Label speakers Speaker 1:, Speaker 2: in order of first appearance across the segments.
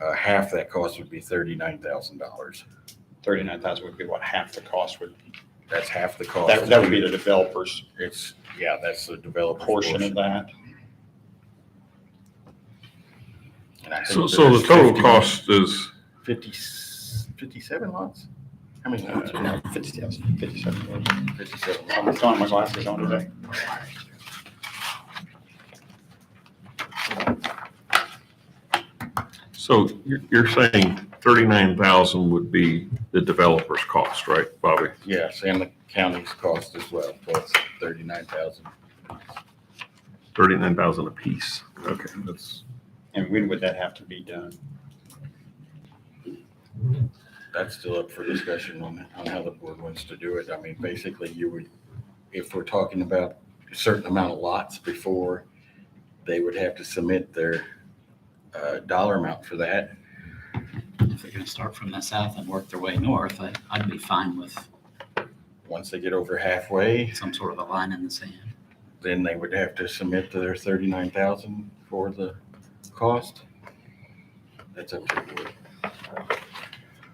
Speaker 1: uh, half that cost would be thirty-nine thousand dollars.
Speaker 2: Thirty-nine thousand would be what half the cost would,
Speaker 1: That's half the cost.
Speaker 2: that, that would be the developer's
Speaker 1: It's, yeah, that's the developer
Speaker 2: portion of that.
Speaker 3: So, so the total cost is,
Speaker 1: Fifty, fifty-seven lots? How many lots?
Speaker 2: Fifty thousand, fifty-seven.
Speaker 1: Fifty-seven lots.
Speaker 2: I'm throwing my glasses on today.
Speaker 3: so you're, you're saying thirty-nine thousand would be the developer's cost, right, Bobby?
Speaker 1: Yes, and the county's cost as well, plus thirty-nine thousand.
Speaker 3: Thirty-nine thousand apiece. Okay, that's,
Speaker 2: And when would that have to be done?
Speaker 1: That's still up for discussion on, on how the board wants to do it. I mean, basically you would, if we're talking about a certain amount of lots before, they would have to submit their, uh, dollar amount for that.
Speaker 4: If they're gonna start from the south and work their way north, I, I'd be fine with
Speaker 1: Once they get over halfway,
Speaker 4: some sort of a line in the sand.
Speaker 1: then they would have to submit their thirty-nine thousand for the cost. That's up to the board.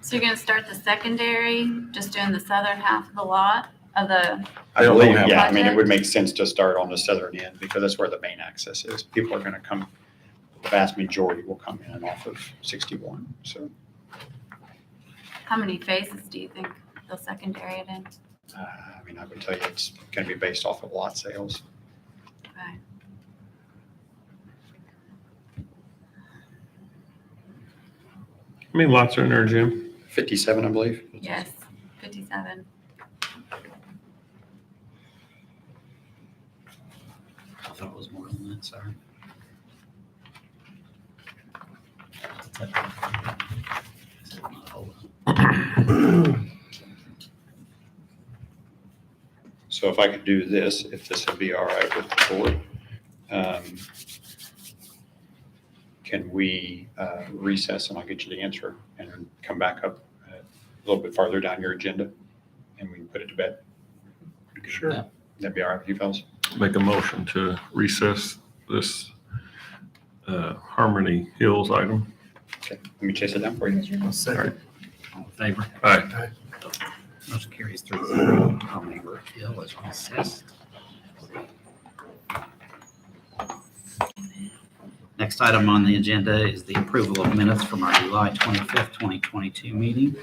Speaker 5: So you're gonna start the secondary, just doing the southern half of the lot of the,
Speaker 1: I don't know
Speaker 2: believe-
Speaker 1: how-
Speaker 2: Yeah, I mean, it would make sense to start on the southern end because that's where the main access is. People are going to come, the vast majority will come in and off of 61, so.
Speaker 5: how many phases do you think they'll secondary it in?
Speaker 2: Uh, I mean, I would tell you it's going to be based off of lot sales.
Speaker 5: Okay.
Speaker 3: how many lots are in there, Jim?
Speaker 2: 57, I believe.
Speaker 5: Yes, fifty-seven.
Speaker 4: I thought it was more than that, sorry.
Speaker 2: So if I could do this, if this would be all right with the board, um, can we uh, recess and I'll get you the answer and come back up uh, a little bit farther down your agenda and we can put it to bed?
Speaker 3: Sure.
Speaker 2: That'd be all right with you fellas?
Speaker 3: Make a motion to recess this, uh, Harmony Hills item.
Speaker 2: Okay, let me chase it down for you.
Speaker 4: All in favor?
Speaker 3: All right,
Speaker 4: Motion carries through. Harmony Brook Hill is recessed. Next item on the agenda is the approval of minutes from our July 25th, 2022 meeting.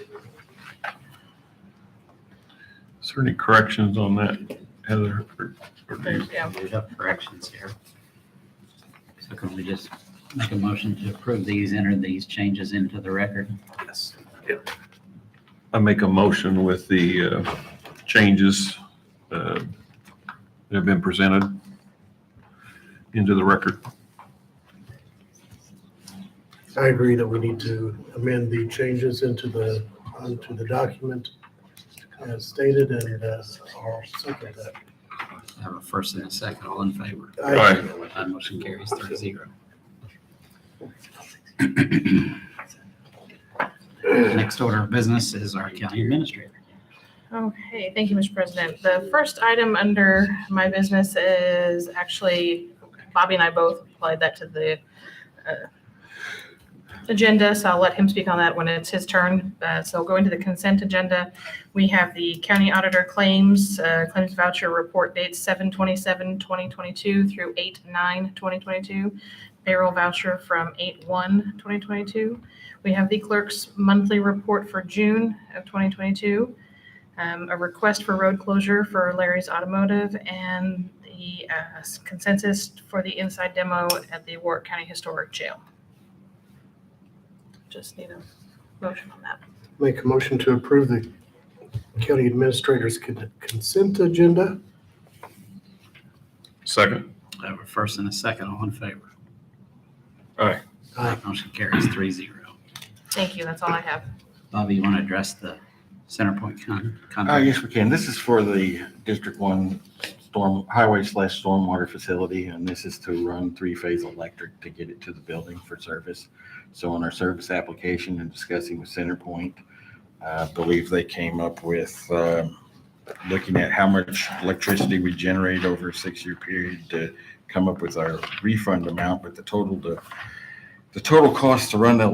Speaker 3: is there any corrections on that, Heather? or- or do you-
Speaker 6: Yeah,
Speaker 4: There's up corrections here. So can we just make a motion to approve these, enter these changes into the record? Yes.
Speaker 3: I make a motion with the uh, changes uh, that have been presented into the record.
Speaker 7: I agree that we need to amend the changes into the, onto the document as stated and uh, I'll second that.
Speaker 4: I have a first and a second, all in favor.
Speaker 7: I-
Speaker 4: My motion carries three zero. Next order of business is our county administrator.
Speaker 6: Okay, thank you, Mr. President. The first item under my business is actually, Bobby and I both applied that to the uh, agenda, so I'll let him speak on that when it's his turn. Uh, So going to the consent agenda, we have the county auditor claims, uh, claims voucher report dates 7 2022 through 8/9/2022, payroll voucher from 8/1/2022. We have the clerk's monthly report for June of 2022, um, a request for road closure for Larry's Automotive and the uh, consensus for the inside demo at the Warwick County Historic Jail. Just need a motion on that.
Speaker 7: Make a motion to approve the county administrator's con- consent agenda.
Speaker 3: Second.
Speaker 4: I have a first and a second, all in favor.
Speaker 3: Aye.
Speaker 7: Aye.
Speaker 4: Motion carries three zero.
Speaker 6: Thank you, that's all I have.
Speaker 4: Bobby, you want to address the Center Point con-
Speaker 1: Uh,
Speaker 4: contract?
Speaker 1: yes, we can. This is for the District One Storm, Highway slash Stormwater Facility, and this is to run three-phase electric to get it to the building for service. So on our service application and discussing with Centerpoint, I believe they came up with, um, looking at how much electricity we generate over a six-year period to come up with our refund amount, but the total to, the total cost to run the